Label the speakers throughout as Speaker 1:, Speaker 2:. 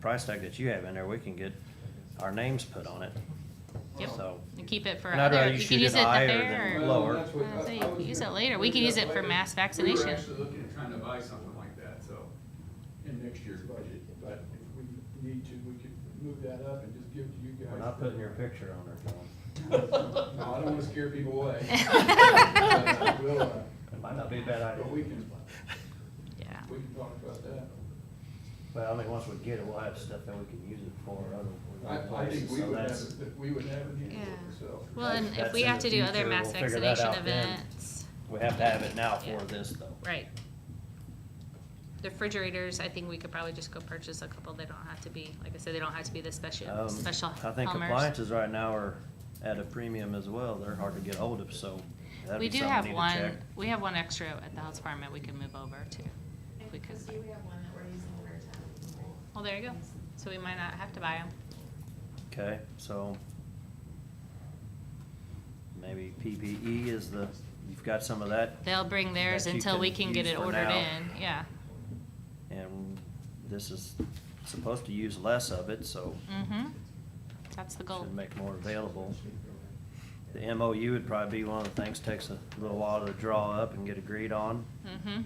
Speaker 1: price tag that you have in there, we can get our names put on it.
Speaker 2: Yep,
Speaker 1: So-
Speaker 2: and keep it for
Speaker 1: And I'd rather
Speaker 2: other,
Speaker 1: you
Speaker 2: you
Speaker 1: shoot
Speaker 2: can use
Speaker 1: it
Speaker 2: it at the
Speaker 1: higher
Speaker 2: fair.
Speaker 1: than
Speaker 2: or-
Speaker 1: low. lower.
Speaker 2: Uh, so you can use it later. We could use it for mass
Speaker 3: We
Speaker 2: vaccination.
Speaker 3: were actually looking at trying to buy something like that, so, in next year's budget, but
Speaker 4: But if we need to, we could move that up and just give it to you guys.
Speaker 1: We're not putting your picture on there, John.
Speaker 3: no, I don't wanna scare people away. But we'll, uh,
Speaker 1: It might not be a bad
Speaker 3: But we
Speaker 1: idea.
Speaker 3: can,
Speaker 2: Yeah.
Speaker 3: we can talk about that.
Speaker 1: Well, I mean, once we get it, we'll have stuff that we can use it for other, other
Speaker 3: I, I think
Speaker 1: places,
Speaker 3: we
Speaker 1: so
Speaker 3: would have,
Speaker 1: that's.
Speaker 3: it- we would have it handled,
Speaker 2: Yeah.
Speaker 3: so.
Speaker 2: Well, and if
Speaker 1: That's
Speaker 2: we
Speaker 1: in
Speaker 2: have
Speaker 1: the
Speaker 2: to do other
Speaker 1: future.
Speaker 2: mass
Speaker 1: We'll figure that
Speaker 2: vaccination
Speaker 1: out then.
Speaker 2: events,
Speaker 1: We have to have it now for
Speaker 2: Yeah.
Speaker 1: this though.
Speaker 2: right. The Refrigerators, I think we could probably just go purchase a couple. They don't have to be, like I said, they don't have to be the special,
Speaker 1: Um,
Speaker 2: special
Speaker 1: I think
Speaker 2: Helmers.
Speaker 1: appliances right now are at a premium as well. They're hard to get hold of, so that'd
Speaker 2: We
Speaker 1: be
Speaker 2: do
Speaker 1: something
Speaker 2: have
Speaker 1: we need to
Speaker 2: one,
Speaker 1: check.
Speaker 2: we have one extra at the health department we can move over to.
Speaker 5: And
Speaker 2: We could.
Speaker 5: Christie, we have one that we're using for a time.
Speaker 2: Well, there you go. So we might not have to buy them.
Speaker 1: Okay, so maybe PPE is the, you've got some of that,
Speaker 2: They'll bring theirs
Speaker 1: That you
Speaker 2: until we
Speaker 1: can
Speaker 2: can get
Speaker 1: use
Speaker 2: it
Speaker 1: for
Speaker 2: ordered
Speaker 1: now.
Speaker 2: in, yeah.
Speaker 1: and this is supposed to use less of it, so
Speaker 2: Mm-hmm. That's the goal.
Speaker 1: should make more available. The MOU would probably be one of the things, takes a little while to draw up and get agreed on.
Speaker 2: Mm-hmm.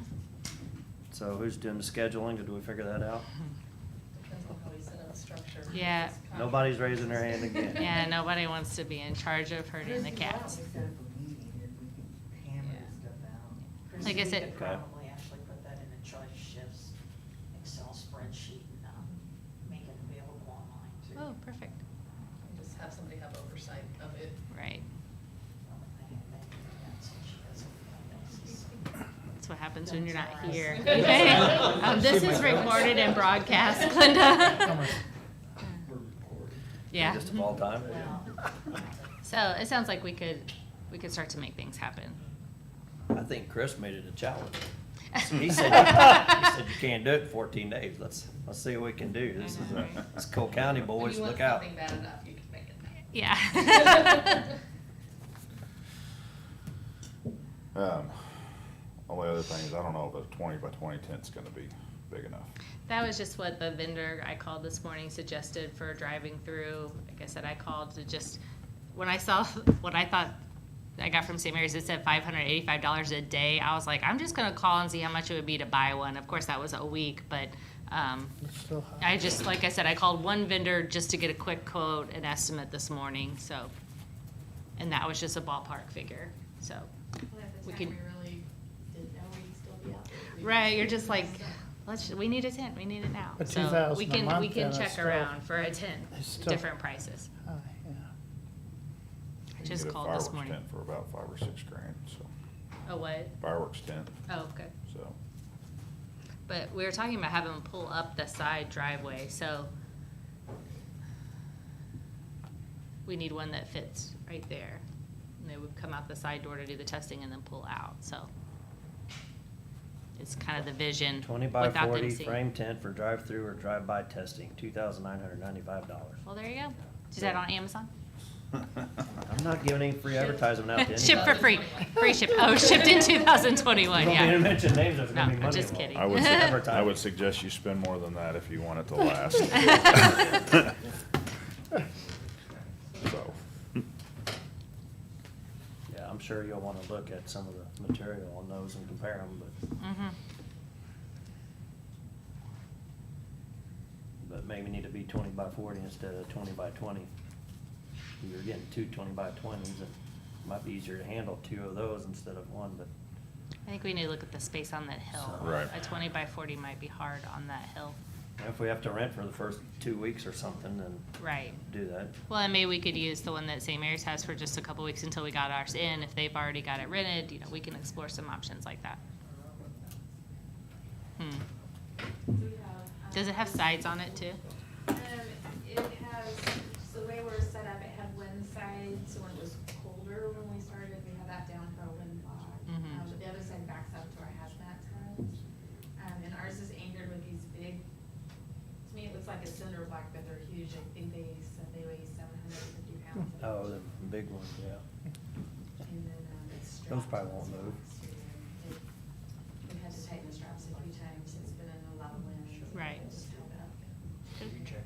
Speaker 1: So who's doing the scheduling? Did we figure that out?
Speaker 5: Depends on how we set up the structure.
Speaker 2: Yeah.
Speaker 1: Nobody's raising their hand again.
Speaker 2: Yeah, nobody wants to be in charge of hurting the
Speaker 6: Christy, why don't
Speaker 2: cats.
Speaker 6: we set up a meeting and we can hammer
Speaker 2: Yeah.
Speaker 6: this stuff out?
Speaker 2: Like I
Speaker 6: Christy, we
Speaker 2: said-
Speaker 6: could
Speaker 1: Okay.
Speaker 6: Probably actually put that in a choice shifts Excel spreadsheet and, um, make it available online too.
Speaker 2: Oh, perfect.
Speaker 5: Just have somebody have oversight of it.
Speaker 2: Right.
Speaker 6: I think maybe that's what she does on that basis.
Speaker 2: That's what happens when you're not here.
Speaker 5: That's
Speaker 2: Okay.
Speaker 5: all right.
Speaker 2: Um, this is recorded and broadcast, Glenda.
Speaker 3: We're recording.
Speaker 2: Yeah.
Speaker 1: Just of all time?
Speaker 6: Well,
Speaker 2: So it sounds like we could, we could start to make things happen.
Speaker 1: I think Chris made it a challenge. He said, he said you can't do it in fourteen days. Let's, let's see what we can do. This is,
Speaker 2: Mm-hmm.
Speaker 1: a- it's Cole County
Speaker 5: When
Speaker 1: boys,
Speaker 5: you want
Speaker 1: look out.
Speaker 5: something bad enough, you can make it happen.
Speaker 2: Yeah.
Speaker 7: Um, only other thing is, I don't know if a twenty by twenty tent's gonna be big enough.
Speaker 2: That was just what the vendor I called this morning suggested for driving through. Like I said, I called to just, when I saw what I thought I got from St. Mary's, it said five hundred eighty-five dollars a day. I was like, I'm just gonna call and see how much it would be to buy one. Of course, that was a week, but, um, I just, like I said, I called one vendor just to get a quick quote and estimate this morning, so. And that was just a ballpark figure, so.
Speaker 5: Well, at the
Speaker 2: We
Speaker 5: time, we
Speaker 2: could-
Speaker 5: really didn't know we'd still be out there. We
Speaker 2: Right, you're
Speaker 5: were
Speaker 2: just like,
Speaker 5: stuck.
Speaker 2: let's, we need a tent, we need it now.
Speaker 8: But
Speaker 2: So
Speaker 8: 2,000
Speaker 2: we
Speaker 8: a
Speaker 2: can- We can
Speaker 8: month, then it's
Speaker 2: check
Speaker 8: still-
Speaker 2: around for a tent,
Speaker 8: it's still-
Speaker 2: different prices.
Speaker 8: Oh, yeah.
Speaker 7: You
Speaker 2: I
Speaker 7: can
Speaker 2: just
Speaker 7: get a
Speaker 2: called this
Speaker 7: fireworks
Speaker 2: morning.
Speaker 7: Tent for about five or six grand, so,
Speaker 2: A what?
Speaker 7: fireworks tent,
Speaker 2: Oh, okay.
Speaker 7: so.
Speaker 2: But we were talking about having them pull up the side driveway, so we need one that fits right there. And they would come out the side door to do the testing and then pull out, so. It's kind of the vision
Speaker 1: Twenty by
Speaker 2: without them
Speaker 1: forty
Speaker 2: seeing.
Speaker 1: frame tent for drive-through or drive-by testing, two thousand nine hundred ninety-five dollars.
Speaker 2: Well, there you go. Is that on Amazon?
Speaker 1: I'm not giving any free advertisement out to anybody.
Speaker 2: Ship for free, free ship, oh, shipped in two thousand
Speaker 1: You
Speaker 2: twenty-one,
Speaker 1: don't need to
Speaker 2: yeah.
Speaker 1: mention names, there's
Speaker 2: No,
Speaker 1: gonna be
Speaker 2: I'm
Speaker 1: money
Speaker 2: just
Speaker 1: involved.
Speaker 2: kidding.
Speaker 7: I would, su- I
Speaker 1: Advertising.
Speaker 7: would suggest you spend more than that if you want it to last. So,
Speaker 1: Yeah, I'm sure you'll wanna look at some of the material on those and compare them, but,
Speaker 2: Mhm.
Speaker 1: but maybe need to be twenty by forty instead of twenty by twenty. You're getting two twenty by twenties, it might be easier to handle two of those instead of one, but
Speaker 2: I think we need to look at the space on that hill.
Speaker 7: Right.
Speaker 2: A twenty by forty might be hard on that hill,
Speaker 1: if we have to rent for the first two weeks or something, then
Speaker 2: right.
Speaker 1: do that.
Speaker 2: Well, and maybe we could use the one that St. Mary's has for just a couple weeks until we got ours in. If they've already got it rented, you know, we can explore some options like that. Hmm.
Speaker 5: We have,
Speaker 2: Does it
Speaker 5: um,
Speaker 2: have sides on it too?
Speaker 5: Um, it has, so the way we're set up, it had one side, so when it was colder when we started, we had that down for a windblock.
Speaker 2: Mhm.
Speaker 5: Um, but the other side backs up to our hazmat tent. Um, and ours is anchored with these big, to me, it looks like a cinder block, but they're huge. I think they said they weigh seven hundred and fifty pounds.
Speaker 1: Oh, the big ones, yeah.
Speaker 5: And then, um, it's strapped.
Speaker 1: Those probably won't
Speaker 5: to the
Speaker 1: move.
Speaker 5: box, too. It- We had to tighten the straps a few times. It's been in a lot of wind.
Speaker 2: Right.
Speaker 5: It just held up.
Speaker 9: You
Speaker 3: check